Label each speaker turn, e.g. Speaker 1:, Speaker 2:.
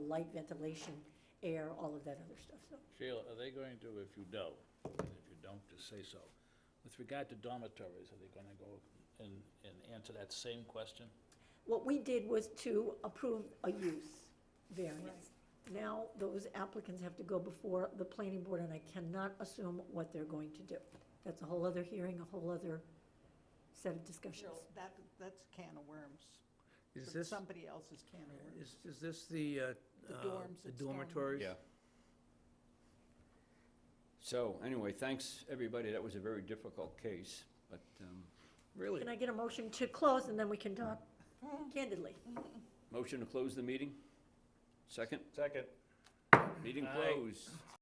Speaker 1: light ventilation, air, all of that other stuff, so.
Speaker 2: Sheila, are they going to, if you know, and if you don't, just say so, with regard to dormitories, are they gonna go and, and answer that same question?
Speaker 1: What we did was to approve a use variance. Now, those applicants have to go before the planning board, and I cannot assume what they're going to do. That's a whole other hearing, a whole other set of discussions.
Speaker 3: Cheryl, that, that's a can of worms.
Speaker 4: Is
Speaker 3: That's
Speaker 4: this,
Speaker 3: Somebody else's can of worms.
Speaker 4: is, is this the, uh,
Speaker 3: The
Speaker 4: uh,
Speaker 3: dorms
Speaker 4: the
Speaker 3: at Stonehenge.
Speaker 4: dormitories?
Speaker 5: Yeah. So anyway, thanks, everybody. That was a very difficult case, but um,
Speaker 4: Really?
Speaker 1: Can I get a motion to close, and then we can talk candidly?
Speaker 5: motion to close the meeting? Second?
Speaker 4: Second.
Speaker 5: Meeting
Speaker 2: Aye.
Speaker 5: closed.